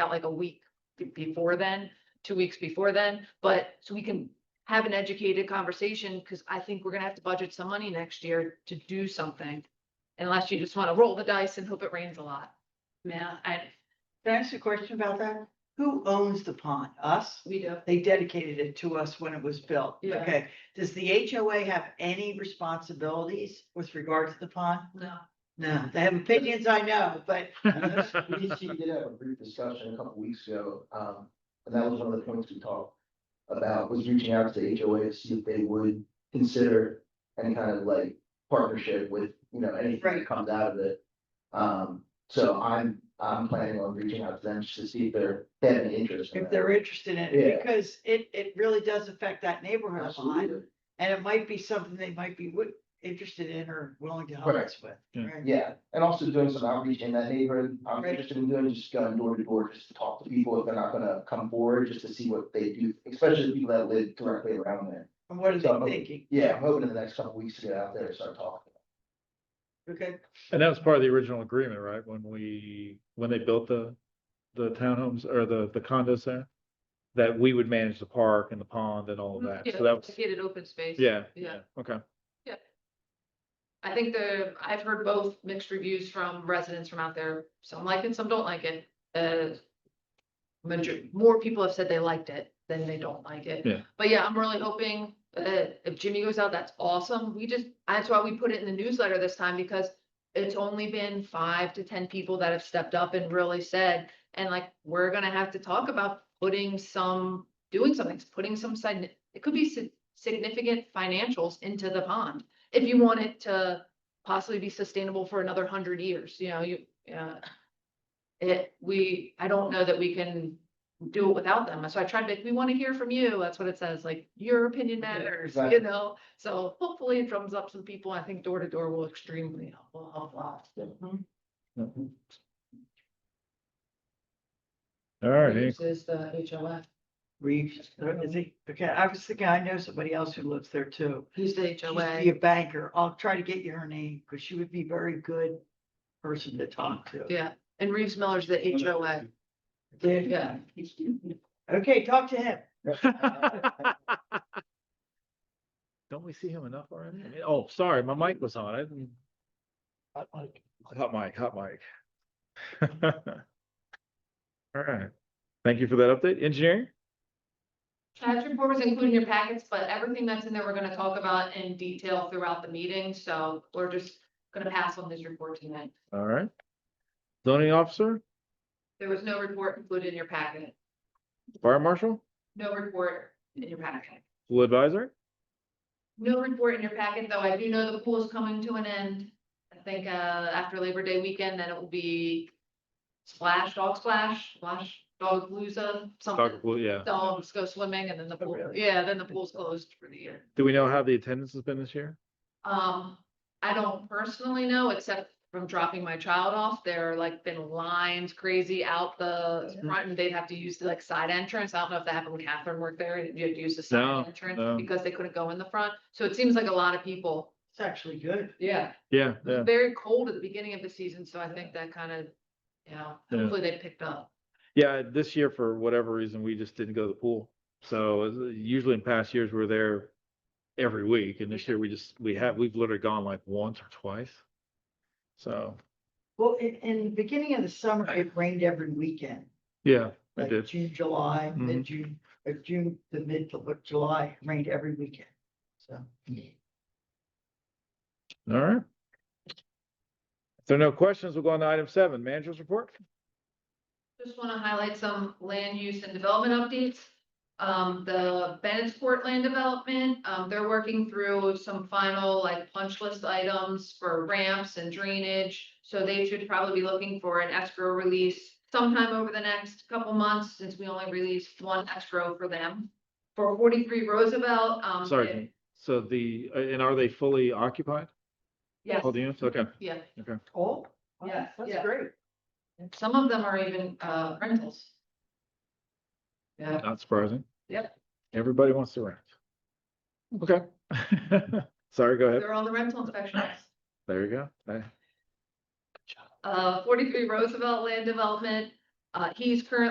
out like a week be- before then, two weeks before then, but so we can have an educated conversation, because I think we're gonna have to budget some money next year to do something. Unless you just want to roll the dice and hope it rains a lot. Yeah, I, Can I ask you a question about that? Who owns the pond? Us? We do. They dedicated it to us when it was built. Yeah. Okay, does the HOA have any responsibilities with regard to the pond? No. No, they have opinions, I know, but And that's- We did- we did have a brief discussion a couple weeks ago, um, and that was one of the points we talked about, was reaching out to the HOA to see if they would consider any kind of like partnership with, you know, anything that Right. comes out of it. Um, so I'm, I'm planning on reaching out to them just to see if they're, they have any interest. in if that. they're interested in Yeah. it, because it, it really does affect that neighborhood a lot. Absolutely, And it might be something they might be would, interested in or willing to help Right. us with. Yeah. right? yeah, and also doing some outreach in that neighborhood, I'm Right. interested in doing, just going door to door, just to talk to people if they're not gonna come forward, just to see what they do, especially the people that live directly around there. And what are So- they thinking? Yeah, I'm hoping in the next couple weeks to get out there and start talking. Okay, and that was part of the original agreement, right? When we, when they built the, the townhomes or the, the condos there? That we would manage the park and the pond and all of Mm-hmm. that. So that was, Get it open space. yeah, yeah, Yeah. okay. I think the, I've heard both mixed reviews from residents from out there, some like it, some don't like it, uh. Major, more people have said they liked it than they don't like it. Yeah. But yeah, I'm really hoping, uh, if Jimmy goes out, that's awesome, we just, that's why we put it in the newsletter this time, because. It's only been five to ten people that have stepped up and really said, and like, we're gonna have to talk about putting some, doing something, putting some side. It could be si- significant financials into the pond if you want it to possibly be sustainable for another hundred years, you know, you, uh. It, we, I don't know that we can do it without them, so I tried to, we wanna hear from you, that's what it says, like, your opinion Yeah, matters, exactly. you know? So hopefully it drums up some people, I think door to door will extremely help, will help lots. All right, any- Is the HOF, Reeves, where is he? Okay, I was thinking, I know somebody else who lives there too. who's the She used to be HOA? a banker. I'll try to get you her name because she would be very good person to talk to. Yeah, and Reeves Miller's the HOA, Yeah. yeah. Okay, talk to him. Don't we see him enough already? I mean, Oh, sorry, my mic was on. I didn't. Hot mic. Hot mic, hot mic. All right. Thank you for that update. Engineering? Patch report was included in your packets, but everything that's in there, we're gonna talk about in detail throughout the meeting, so we're just gonna pass on this report tonight. All right. Zoning officer, There was no report included in your packet, fire marshal, no report in your packet. pool advisor. No report in your packet, though I do know the pool is coming to an end. I think, uh, after Labor Day weekend, then it will be splash, dog splash, splash, dog palooza, Dr. something. Pool, yeah. Dogs go swimming and then the pool, really? yeah, then the pool's closed for the year. Do we know how the attendance has been this year? Um, I don't personally know, except from dropping my child off, there like been lines crazy out the front and they'd have to use the like side entrance. I don't know if that happened when Catherine worked there, and you had to use the No, side entrance no. because they couldn't go in the front. So it seems like a lot of people, It's actually good. yeah, Yeah, it was yeah. very cold at the beginning of the season, so I think that kind of, you know, Yeah. hopefully they picked up. Yeah, this year for whatever reason, we just didn't go to the pool. So as- usually in past years, we're there every week and this year we just, we have, we've literally gone like once or twice. So, Well, in, in the beginning of the summer, it rained every weekend, yeah, I like did. June, July, Mhm. mid-June, uh, June, the mid, to what, July, it rained every weekend. So, All right. If there are no questions, we'll go on to item seven, manager's report. Just want to highlight some land use and development updates. Um, the Bennettsport land development, um, they're working through some final like punch list items for ramps and drainage. So they should probably be looking for an escrow release sometime over the next couple months, since we only released one escrow for them. For forty-three Roosevelt, um. it- Sorry. So the, uh, and are they fully occupied? Yes, All the units? Okay. yeah, oh, wow, Yes, that's yeah. great. and some of them are even, uh, rentals. Yeah. Not surprising. Yep. Everybody wants to rent. Okay. Sorry, go ahead. They're on the rental inspections. There you go. Hey. uh, forty-three Roosevelt Land Development. Uh, he's currently